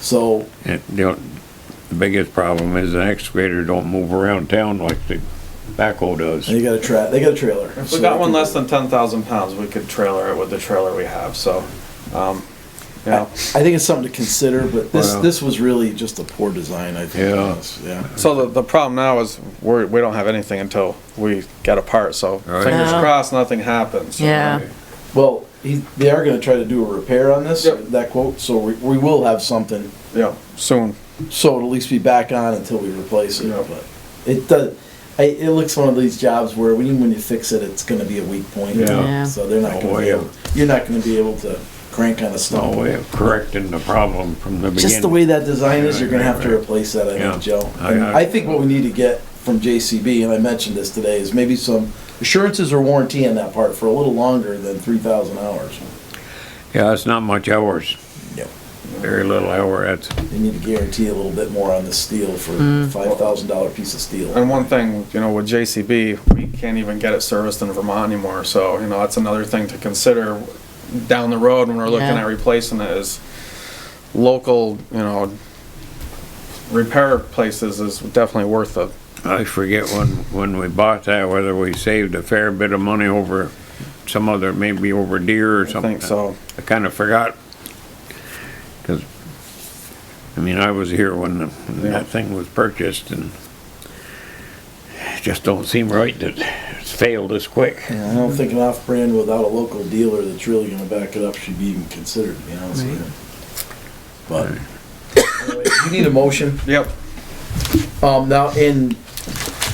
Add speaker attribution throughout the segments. Speaker 1: So,
Speaker 2: It, you know, the biggest problem is an excavator don't move around town like the backhoe
Speaker 1: and
Speaker 2: does.
Speaker 1: you got a tra, they got a trailer.
Speaker 3: If
Speaker 1: so
Speaker 3: we
Speaker 1: they
Speaker 3: got one
Speaker 1: can-
Speaker 3: less than ten thousand pounds, we could trailer it with the trailer we have, so, um, you know.
Speaker 1: I think it's something to consider, but this,
Speaker 2: Wow.
Speaker 1: this was really just a poor design, I think.
Speaker 2: Yeah.
Speaker 1: Yeah.
Speaker 3: So the, the problem now is we're, we don't have anything until we get a part, so
Speaker 2: Right.
Speaker 3: fingers
Speaker 4: Yeah.
Speaker 3: crossed, nothing happens.
Speaker 4: Yeah.
Speaker 1: Well, he, they are gonna try to do a repair on this,
Speaker 3: Yep.
Speaker 1: that quote, so we, we will have something.
Speaker 3: Yeah, soon.
Speaker 1: So it'll at least be back on until we replace it,
Speaker 3: Yeah.
Speaker 1: but it does, I, it looks one of these jobs where when, you- when you fix it, it's gonna be a weak point.
Speaker 2: Yeah.
Speaker 4: Yeah.
Speaker 1: So they're not
Speaker 2: No
Speaker 1: gonna be
Speaker 2: way.
Speaker 1: able, you're not gonna be able to crank on a
Speaker 2: No
Speaker 1: stump.
Speaker 2: way of correcting the problem from the
Speaker 1: Just the
Speaker 2: beginning.
Speaker 1: way that design is, you're gonna have to replace that, I
Speaker 2: Yeah.
Speaker 1: think, Joe.
Speaker 2: I-
Speaker 1: And
Speaker 2: I-
Speaker 1: I think what we need to get from JCB, and I mentioned this today, is maybe some assurances or warranty on that part for a little longer than three thousand hours.
Speaker 2: Yeah, it's not much hours,
Speaker 1: Yep.
Speaker 2: very little hour, that's,
Speaker 1: They need to guarantee a little bit more on the steel for five thousand dollar piece of steel.
Speaker 3: And one thing, you know, with JCB, we can't even get it serviced in Vermont anymore, so, you know, that's another thing to consider down the road when we're looking
Speaker 4: Yeah.
Speaker 3: at replacing it is local, you know, repair places is definitely worth it.
Speaker 2: I forget when, when we bought that, whether we saved a fair bit of money over some other, maybe over deer or
Speaker 3: I
Speaker 2: something.
Speaker 3: think so.
Speaker 2: I kinda forgot. Cause, I mean, I was here when the- when that thing was purchased and it just don't seem right that it's failed this quick.
Speaker 1: And I don't think an off-brand without a local dealer that's really gonna back it up should be even considered, to be honest with you. But, anyway, you need a motion.
Speaker 3: Yep,
Speaker 1: Um, now in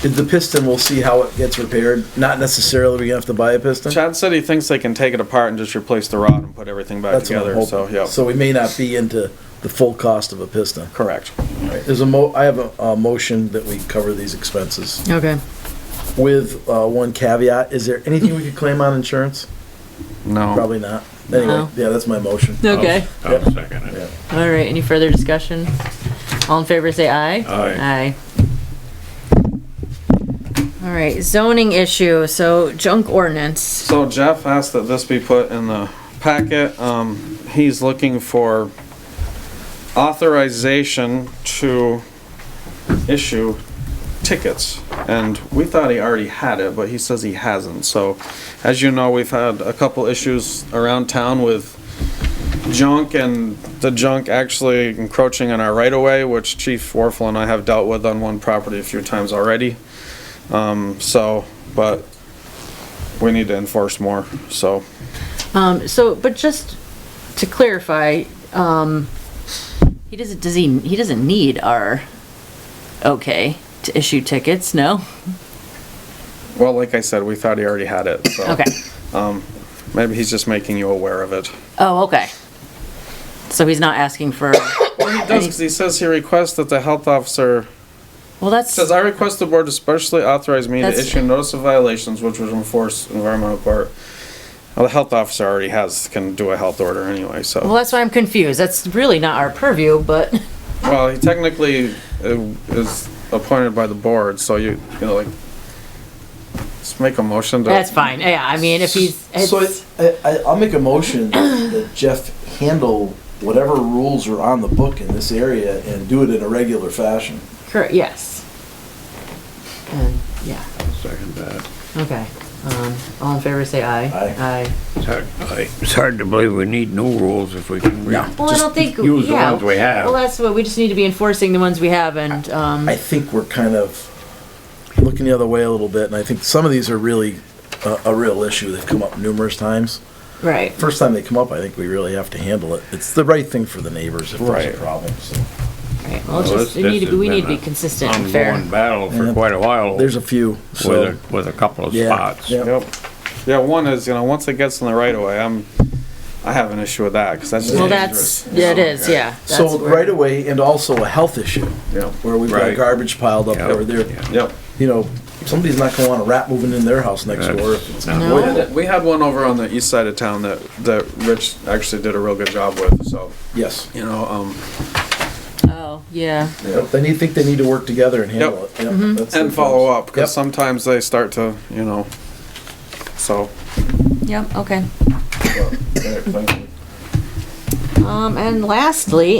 Speaker 1: the piston, we'll see how it gets repaired. Not necessarily we have to buy a piston.
Speaker 3: Chad said he thinks they can take it apart and just replace the rod and put everything back
Speaker 1: That's what I'm
Speaker 3: together,
Speaker 1: hoping.
Speaker 3: so, yep,
Speaker 1: So we may not be into the full cost of a piston.
Speaker 3: correct.
Speaker 1: There's a mo, I have a, a motion that we cover these expenses
Speaker 4: Okay.
Speaker 1: with, uh, one caveat. Is there anything we could claim on insurance?
Speaker 3: No.
Speaker 1: Probably not. Anyway,
Speaker 4: No.
Speaker 1: yeah, that's my motion.
Speaker 4: Okay.
Speaker 2: I'll second
Speaker 1: Yeah.
Speaker 2: it.
Speaker 4: All right. Oh. Any further discussion? All in favor, say aye.
Speaker 2: Aye.
Speaker 4: Aye. All right. Zoning issue. So junk ordinance.
Speaker 3: So Jeff asked that this be put in the packet. Um, he's looking for authorization to issue tickets. And we thought he already had it, but he says he hasn't. So as you know, we've had a couple issues around town with junk and the junk actually encroaching on our right of way, which Chief Warfel and I have dealt with on one property a few times already. Um, so, but we need to enforce more, so.
Speaker 4: Um, so, but just to clarify, um, he doesn't, does he, he doesn't need our okay to issue tickets, no?
Speaker 3: Well, like I said, we thought he already had it, so. Um,
Speaker 4: Okay.
Speaker 3: Maybe he's just making you aware of it.
Speaker 4: Oh, okay. So he's not asking for,
Speaker 3: He does, 'cause he says he requests that the health officer,
Speaker 4: well, that's,
Speaker 3: says, I request the board to specially authorize me to
Speaker 4: That's-
Speaker 3: issue notice of violations, which would enforce environmental court. Well, the health officer already has, can do a health order anyway,
Speaker 4: well,
Speaker 3: so.
Speaker 4: that's why I'm confused. That's really not our purview, but,
Speaker 3: Well, he technically uh, is appointed by the board, so you, you know, like, just make a motion to.
Speaker 4: that's fine. Yeah, I mean, if he's,
Speaker 1: So
Speaker 4: it's,
Speaker 1: I, I, I'll make a motion that Jeff handle whatever rules are on the book in this area and do it in a regular fashion.
Speaker 4: correct, yes. And, yeah,
Speaker 2: I'll second that.
Speaker 4: okay. Um, all in favor, say aye.
Speaker 1: Aye.
Speaker 4: Aye.
Speaker 2: It's hard, I- it's hard to believe we need new rules if we can. re-
Speaker 1: No.
Speaker 4: Well, I
Speaker 1: Just
Speaker 4: don't think,
Speaker 2: use the
Speaker 4: yeah.
Speaker 2: ones we have.
Speaker 4: Well, that's what, we just need to be enforcing the ones we have and, um,
Speaker 1: I think we're kind of looking the other way a little bit, and I think some of these are really uh, a, a real issue. They've come up numerous times.
Speaker 4: right.
Speaker 1: First time they come up, I think we really have to handle it. It's the right thing for the neighbors if there's
Speaker 2: Right.
Speaker 1: a problem, so.
Speaker 4: Right, well, it's
Speaker 2: Well,
Speaker 4: just,
Speaker 2: this-
Speaker 4: we need to,
Speaker 2: this
Speaker 4: be- we
Speaker 2: has
Speaker 4: need to
Speaker 2: been
Speaker 4: be
Speaker 2: a
Speaker 4: consistent and fair.
Speaker 2: Ongoing battle
Speaker 1: Yeah.
Speaker 2: for quite a while
Speaker 1: There's
Speaker 2: with,
Speaker 1: a few, so.
Speaker 2: a- with a couple of
Speaker 1: Yeah,
Speaker 2: spots.
Speaker 1: yeah.
Speaker 3: Yep. Yeah, one is, you know, once it gets in the right of way, I'm, I have an issue with that, because that's just
Speaker 4: Well,
Speaker 3: dangerous.
Speaker 4: that's, yeah, it is, yeah. That's
Speaker 1: So
Speaker 4: where-
Speaker 1: right away, and also a health issue,
Speaker 3: Yep,
Speaker 1: where we've got
Speaker 2: Right.
Speaker 1: garbage piled up
Speaker 2: Yeah,
Speaker 1: over there.
Speaker 2: yeah.
Speaker 3: yep.
Speaker 1: You know, somebody's not gonna want a rat moving in their house next
Speaker 2: That's-
Speaker 1: door if it's
Speaker 2: no.
Speaker 4: No.
Speaker 1: avoidable.
Speaker 3: We had one over on the east side of town that, that Rich actually did a real good job with, so,
Speaker 1: Yes.
Speaker 3: you know, um,
Speaker 4: Oh, yeah,
Speaker 1: Yep, They need, think they need to work together and handle it. Yep, that's
Speaker 3: Mm-hmm.
Speaker 1: the-
Speaker 3: and follow up, because
Speaker 1: Yep.
Speaker 3: sometimes they start to, you know, so.
Speaker 4: yep, okay.
Speaker 3: but, all right, thank you.
Speaker 4: Um, and lastly,